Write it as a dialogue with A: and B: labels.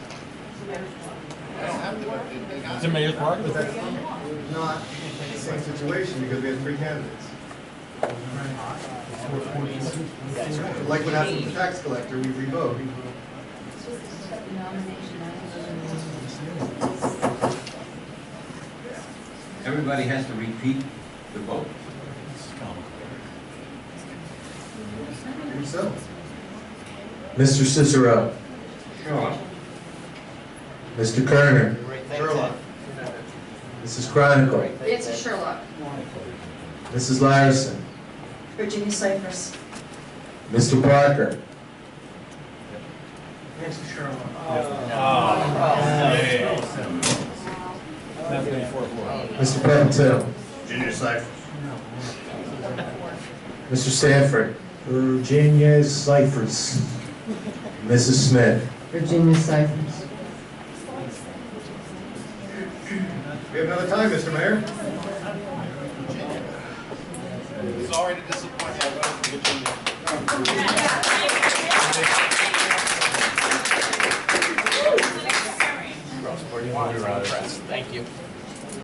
A: It's a mayor's park.
B: That's not the same situation because we have three candidates. Like what happened with the tax collector, we revoked.
C: Everybody has to repeat the vote.
B: And so,
D: Mr. Cicero,
C: Sure.
D: Mr. Kerner,
B: Gerlach,
D: Mrs. Chronicle,
E: It's a Sherlock.
D: Mrs. Larson,
F: Virginia Cypress.
D: Mr. Parker,
A: That's the fourth floor.
D: Mr. Pepitone,
C: Junior Cypher.
D: Mr. Sanford. Virginia Cyphers. Mrs. Smith.
G: Virginia Cyphers.
B: we have another time, Mr. Mayor.
A: Sorry to disappoint you.